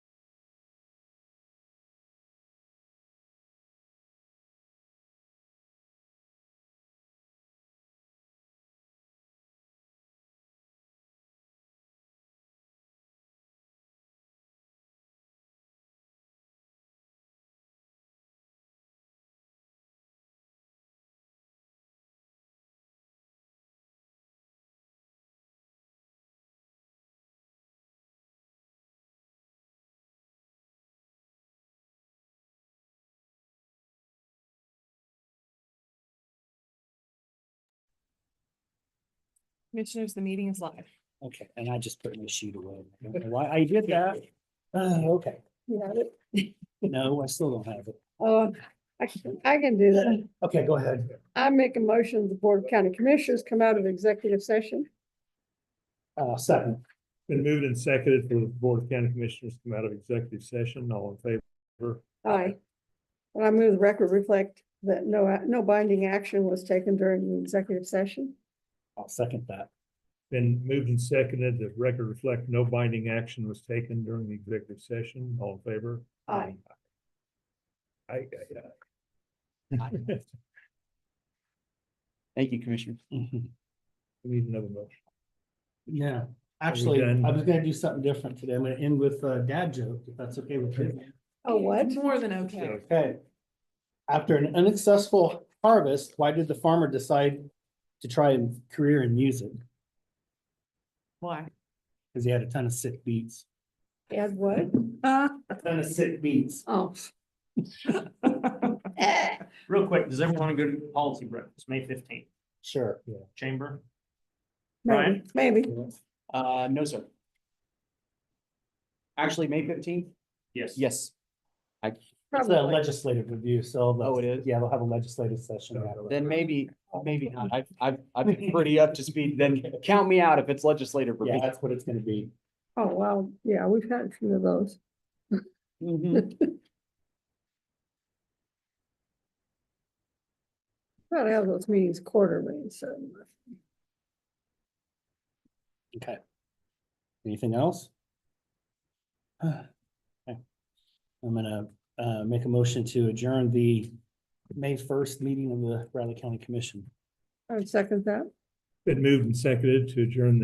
Commissioners, the meeting is live. Okay, and I just put my sheet away. I don't know Why I did that? Uh, okay. You have it? No, I still don't have it. Uh, I can, I can do that. Okay, go ahead. I make a motion, the Board of County Commissioners come out of executive session. Uh, second. Been moved and seconded for the Board of County Commissioners to come out of executive session. All in favor? Aye. And I move the record reflect that no, a- no binding action was taken during the executive session. I'll second that. Been moved and seconded. The record reflect no binding action was taken during the executive session. All in favor? Aye. I, I, Aye. I. Thank you, Commissioner. Mhm. We need another motion. Yeah, actually, done? I was gonna do something different today. I'm gonna end with a dad joke, if that's okay with you. Oh, what? More than okay. So, Okay. After an unsuccessful harvest, why did the farmer decide to try a career in music? Why? Because he had a ton of sick beats. Add what? Uh, A ton of sick beats. Oh. Real quick, does everyone want to go to policy breakfast, May fifteenth, Sure. chamber? Maybe, Brian? maybe. Uh, no, sir. Actually, May fifteenth? Yes. Yes. It's a legislative review, so. they'll- Oh, it is? Yeah, they'll have a legislative session. after that. Then maybe, maybe not. I've, I've, I've been pretty up to speed. Then count me out if it's legislative Yeah, review. that's what it's gonna be. Oh, wow. Yeah, we've had a few of those. Mhm. Mm-hmm. Try to have those meetings quarterly, so. Okay. Anything else? Okay. I'm gonna uh make a motion to adjourn the May first meeting of the Bradley County Commission. I would second that. Been moved and seconded to adjourn the